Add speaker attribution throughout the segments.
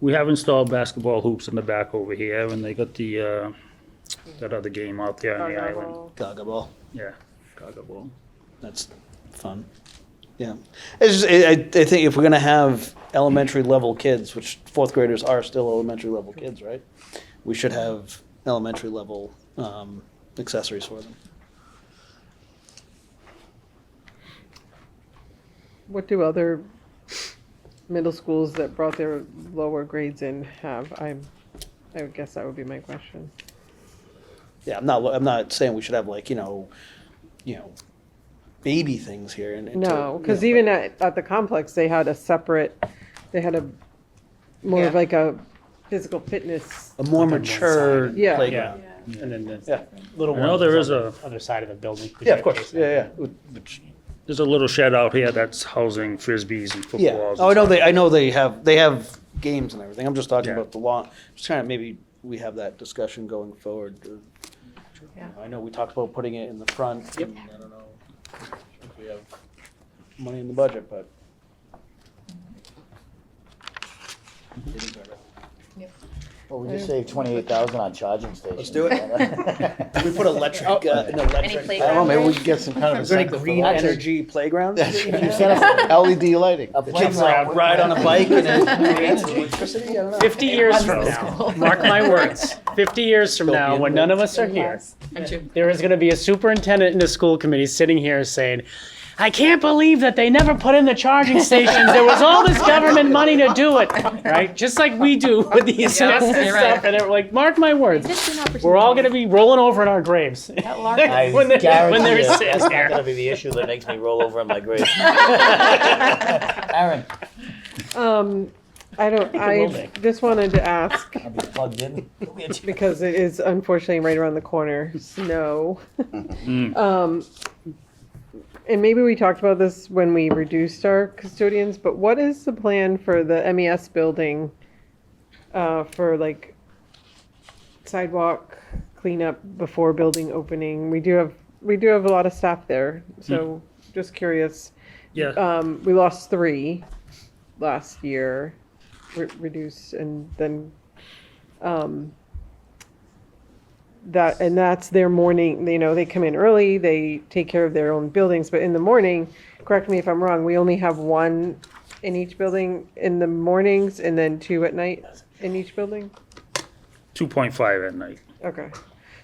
Speaker 1: we have installed basketball hoops in the back over here, and they got the, uh, that other game out there on the island.
Speaker 2: Gargoyle.
Speaker 3: Gaga ball.
Speaker 1: Yeah, Gaga ball.
Speaker 3: That's fun. Yeah, it's just, I, I I think if we're gonna have elementary level kids, which fourth graders are still elementary level kids, right? We should have elementary level um, accessories for them.
Speaker 4: What do other middle schools that brought their lower grades in have? I'm, I would guess that would be my question.
Speaker 3: Yeah, I'm not. I'm not saying we should have like you know, you know, baby things here. And, and to-
Speaker 4: No, because
Speaker 3: you know,
Speaker 4: even at, at the complex, they had a separate, they had a, more of
Speaker 2: Yeah.
Speaker 4: like a physical fitness.
Speaker 3: a more mature
Speaker 4: Yeah.
Speaker 3: playground.
Speaker 5: And then the
Speaker 3: Yeah.
Speaker 5: little
Speaker 1: I
Speaker 5: one.
Speaker 1: know there
Speaker 5: is
Speaker 1: is
Speaker 5: on
Speaker 1: a,
Speaker 5: the other side of the building.
Speaker 3: Yeah, of course. Yeah, yeah. Which-
Speaker 1: there's a little shed out here that's housing frisbees and
Speaker 3: Yeah.
Speaker 1: footballs.
Speaker 3: Oh, I know they. I know they have. They have games and everything. I'm just talking
Speaker 1: Yeah.
Speaker 3: about the lawn. Just kind of maybe we have that discussion going forward.
Speaker 2: Yeah.
Speaker 3: I know we talked about putting it in the front. Yep. I don't know if we have money in the budget, but.
Speaker 6: Well, we just saved twenty-eight thousand on charging stations.
Speaker 3: Let's do it.
Speaker 6: it.
Speaker 3: We put electric, uh, an electric.
Speaker 2: Any
Speaker 6: I don't know,
Speaker 2: playground?
Speaker 6: maybe we could get some kind of
Speaker 3: Is there any
Speaker 6: incentive for
Speaker 3: green
Speaker 6: that.
Speaker 3: energy playground? E
Speaker 6: You set up LED lighting.
Speaker 3: The kids like ride on a bike and it creates electricity? I don't know.
Speaker 5: 50 years from now, mark my words, 50 years from now, when none of us are here, there is going to be a superintendent and a school committee sitting here saying, I can't believe that they never put in the charging stations. There was all this government money to do it, right? Just like we do with the asbestos
Speaker 7: you're right.
Speaker 5: stuff. And they're like, mark my words, we're
Speaker 7: We're
Speaker 5: all going to be rolling over in our graves.
Speaker 7: That
Speaker 6: I
Speaker 7: lark
Speaker 5: When they're- when
Speaker 6: guarantee
Speaker 5: they're
Speaker 6: you,
Speaker 5: sitting
Speaker 6: that's not
Speaker 5: there.
Speaker 6: gonna be the issue that makes me roll over in my grave. Aaron,
Speaker 4: Um, I don't,
Speaker 5: will
Speaker 4: I
Speaker 5: be.
Speaker 4: just wanted to ask,
Speaker 6: I'll be plugged in.
Speaker 4: because it is unfortunately right around the corner, snow.
Speaker 1: Mm.
Speaker 4: Um, and maybe we talked about this when we reduced our custodians, but what is the plan for the MES building? Uh, for like sidewalk cleanup before building opening? We do have, we do have a lot of staff there, so just curious.
Speaker 3: uh,
Speaker 1: Yeah,
Speaker 4: Um, we lost three last year, re- reduced, and then, um, that, and that's their morning, you know, they come in early, they take care of their own buildings, but in the morning, correct me if I'm wrong, we only have one in each building in the mornings and then two at night in each building?
Speaker 1: two point five at night.
Speaker 4: Okay.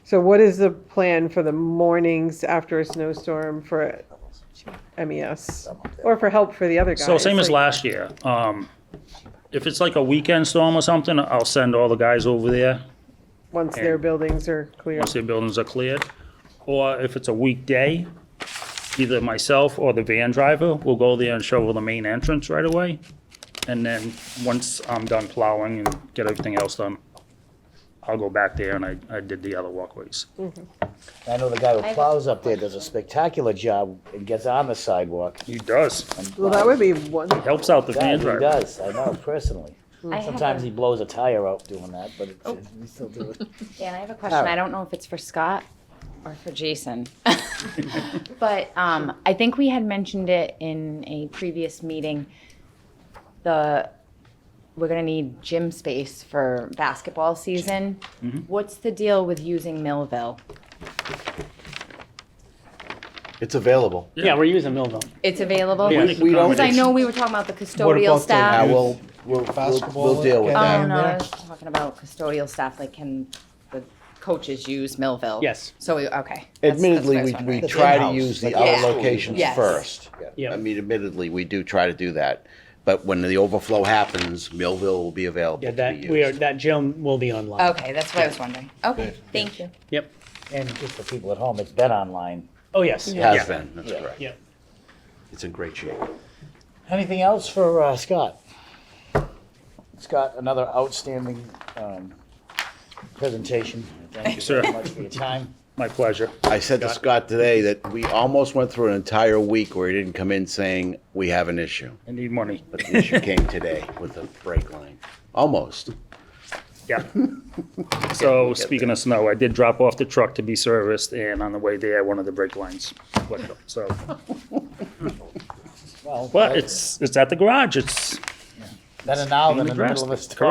Speaker 4: So what is the plan for the mornings after a snowstorm for MES? Or for help for the other guys?
Speaker 1: So same as
Speaker 4: like-
Speaker 1: last year. Um, if it's like a weekend storm or something, I'll send all the guys over there
Speaker 4: Once their buildings are clear.
Speaker 1: once the buildings are cleared. Or if it's a weekday, either myself or the van driver will go there and shovel the main entrance right away. And then, once I'm done plowing and get everything else done, I'll go back there and I, I did the other walkways.
Speaker 6: I know the guy who plows up there does a spectacular job and gets on the sidewalk.
Speaker 1: He does.
Speaker 4: Well, that would be one,
Speaker 1: Helps out the
Speaker 6: Yeah,
Speaker 1: van
Speaker 6: he
Speaker 1: driver.
Speaker 6: does, I know personally.
Speaker 2: I
Speaker 6: Sometimes
Speaker 2: have
Speaker 6: he
Speaker 2: a,
Speaker 6: blows a tire out doing that, but it's, it's- we still do it.
Speaker 2: Dan, I have a question. I don't know if it's for Scott or for Jason. But um, I think we had mentioned it in a previous meeting. The, we're gonna need gym space for basketball season.
Speaker 5: Mm-hmm.
Speaker 2: What's the deal with using Millville?
Speaker 8: It's available.
Speaker 5: Yeah, we're using Millville.
Speaker 2: It's available?
Speaker 1: Yeah.
Speaker 2: Because
Speaker 8: We don't.
Speaker 2: I know we were talking about the custodial
Speaker 8: Yeah,
Speaker 2: staff.
Speaker 8: we'll, we'll, we'll, we'll deal with
Speaker 2: Oh,
Speaker 3: uh,
Speaker 8: that.
Speaker 2: no, I was talking about custodial staff, like can the coaches use Millville?
Speaker 5: Yes.
Speaker 2: So, we- okay. That's- that's what I
Speaker 8: Admittedly,
Speaker 2: was
Speaker 8: we,
Speaker 2: wondering.
Speaker 8: we try to
Speaker 6: in-house,
Speaker 8: use
Speaker 6: like
Speaker 8: the
Speaker 2: in-house.
Speaker 8: other locations
Speaker 2: Yes.
Speaker 8: first.
Speaker 5: Yeah.
Speaker 8: I mean, admittedly, we do try to do that, but when the overflow happens, Millville will be available
Speaker 5: Yeah,
Speaker 8: to be
Speaker 5: that, we are,
Speaker 8: used.
Speaker 5: that gym will be online.
Speaker 7: Oh.
Speaker 2: Okay, that's what I was wondering. Okay, thank you.
Speaker 5: Yep.
Speaker 6: And just for people at home, it's been online.
Speaker 5: Oh, yes.
Speaker 8: Has been, that's correct.
Speaker 5: Yeah.
Speaker 8: It's in great shape.
Speaker 6: Anything else for uh, Scott? Scott, another outstanding um, presentation. Thank you
Speaker 1: Sir.
Speaker 6: very much for your time.
Speaker 1: My pleasure.
Speaker 8: I said to Scott today that we almost went through an entire week where he didn't come in saying, we have an issue.
Speaker 1: I need money.
Speaker 8: But the issue came today with the brake line. Almost.
Speaker 1: Yeah. So speaking of snow, I did drop off the truck to be serviced and on the way there, one of the brake lines went up, so.
Speaker 6: Well,
Speaker 1: But it's, it's at the garage. It's
Speaker 6: better now
Speaker 1: being
Speaker 6: than in the
Speaker 1: addressed.
Speaker 6: middle of a storm.